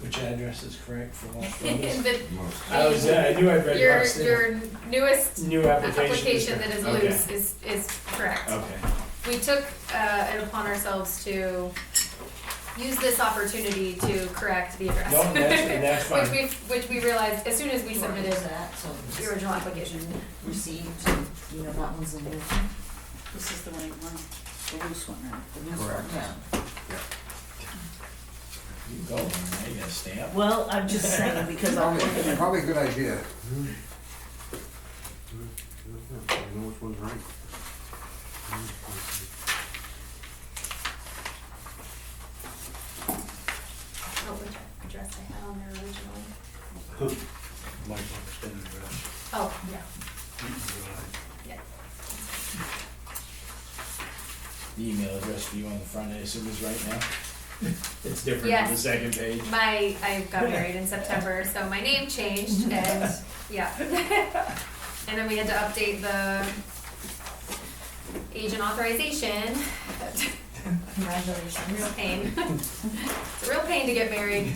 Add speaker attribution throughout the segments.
Speaker 1: which address is correct for all firms.
Speaker 2: The-
Speaker 1: I was, uh, I knew I'd read
Speaker 2: Your,
Speaker 1: Rock's
Speaker 2: your newest uh,
Speaker 1: new application.
Speaker 2: application that is
Speaker 1: Okay.
Speaker 2: loose is, is correct.
Speaker 1: Okay,
Speaker 2: We took, uh, it upon ourselves to use this opportunity to correct the address.
Speaker 1: no, that's, that's
Speaker 2: Which
Speaker 1: fine,
Speaker 2: we, which we realized as soon as we submitted
Speaker 3: that, so
Speaker 2: the original application.
Speaker 3: received, you know, that one's in there. This is the right one, the loose one, right? The loose one,
Speaker 4: Correct.
Speaker 3: yeah.
Speaker 1: you go, I got a stamp.
Speaker 3: Well, I'm just saying, because I'm looking at.
Speaker 4: Probably a good idea. I know which one's right.
Speaker 2: Oh, which address I had on there originally.
Speaker 1: Might have been addressed.
Speaker 2: Oh, yeah.
Speaker 1: The email address for you on the front, I assume is right now? It's different on the
Speaker 2: Yes.
Speaker 1: second page.
Speaker 2: My, I got married in September, so my name changed and, yeah. And then we had to update the agent authorization. Congratulations. Real pain. It's a real pain to get married.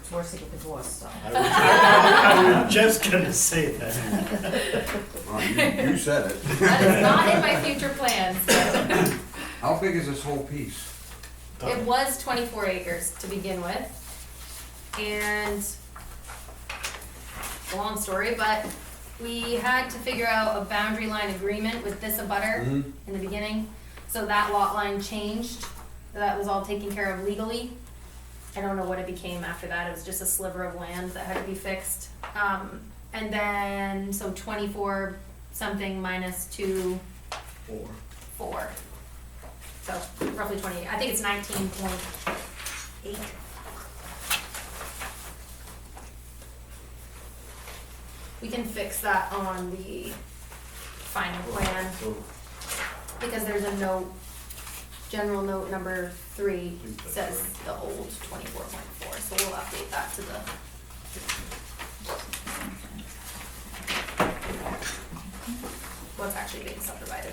Speaker 3: It's worse to get divorced, so.
Speaker 1: I was- I was just gonna say that.
Speaker 4: Well, you, you said it.
Speaker 2: That is not in my future plans, but
Speaker 4: How big is this whole piece?
Speaker 2: it was twenty-four acres to begin with. And it's a long story, but we had to figure out a boundary line agreement with this abutter. in the beginning. So that lot line changed. That was all taken care of legally. I don't know what it became after that. It was just a sliver of land that had to be fixed. Um, and then, so twenty-four something minus two,
Speaker 1: Four.
Speaker 2: four. So roughly twenty, I think it's nineteen point eight. We can fix that on the final plan.
Speaker 1: So,
Speaker 2: Because there's a note, general note number three says the old twenty-four point four, so we'll update that to the. What's actually being subdivided.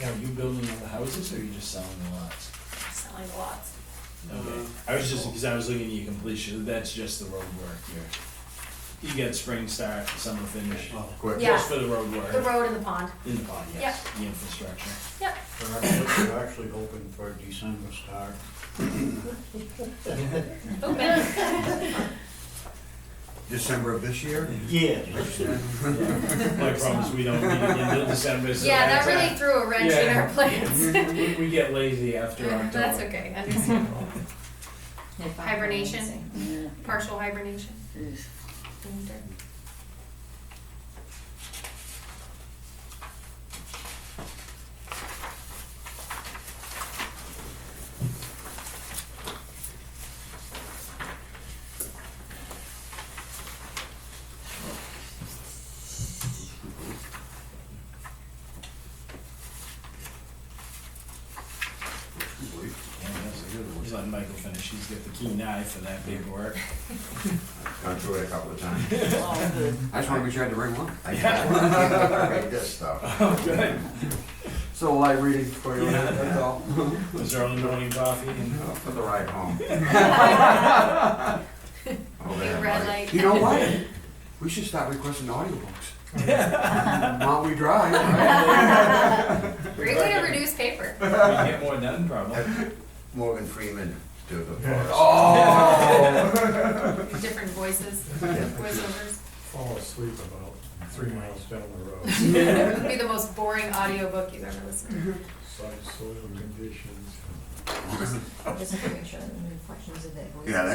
Speaker 1: Now, are you building all the houses or are you just selling the lots?
Speaker 2: Selling the lots. Um,
Speaker 1: Okay, I was just, because I was looking at your completion, that's just the road work here. You get spring start, summer finish,
Speaker 4: Quick.
Speaker 2: Yeah.
Speaker 1: just for the road work,
Speaker 2: The road and the pond.
Speaker 1: in the pond, yes, the infrastructure.
Speaker 2: Yep.
Speaker 5: We're actually- we're actually hoping for a December start.
Speaker 2: Open.
Speaker 4: December of this year?
Speaker 5: Yeah.
Speaker 1: My problem is we don't need it until December, so
Speaker 2: Yeah, that
Speaker 1: that's, uh,
Speaker 2: really threw a wrench in our
Speaker 1: Yeah.
Speaker 2: plans.
Speaker 1: We, we get lazy after October.
Speaker 2: That's okay, understandable. Hibernation.
Speaker 3: Yeah.
Speaker 2: Partial hibernation.
Speaker 3: Oof.
Speaker 2: Winter.
Speaker 1: Yeah, that's a good one. Let Michael finish, he's got the key knife for that big work.
Speaker 6: Gone through it a couple of times.
Speaker 3: All good.
Speaker 4: I just wanna be sure I had the right one.
Speaker 6: I hate this stuff.
Speaker 1: Oh, good.
Speaker 4: So live reading for you,
Speaker 1: Yeah.
Speaker 4: that's all.
Speaker 1: Was there only morning coffee and?
Speaker 6: For the ride home. Oh,
Speaker 2: Big
Speaker 6: man,
Speaker 2: red
Speaker 6: like,
Speaker 2: light.
Speaker 4: You know what? We should start requesting audiobooks. While we drive, right?
Speaker 2: Great way to reduce paper.
Speaker 1: We get more done probably.
Speaker 6: Morgan Freeman do the forest.
Speaker 4: Oh!
Speaker 2: Different voices, voiceovers.
Speaker 5: Fall asleep about three miles down the road.
Speaker 2: It'd be the most boring audiobook you've ever listened to.
Speaker 5: Site soil conditions.
Speaker 3: Just to make sure that the reflections of that voice.
Speaker 6: Yeah,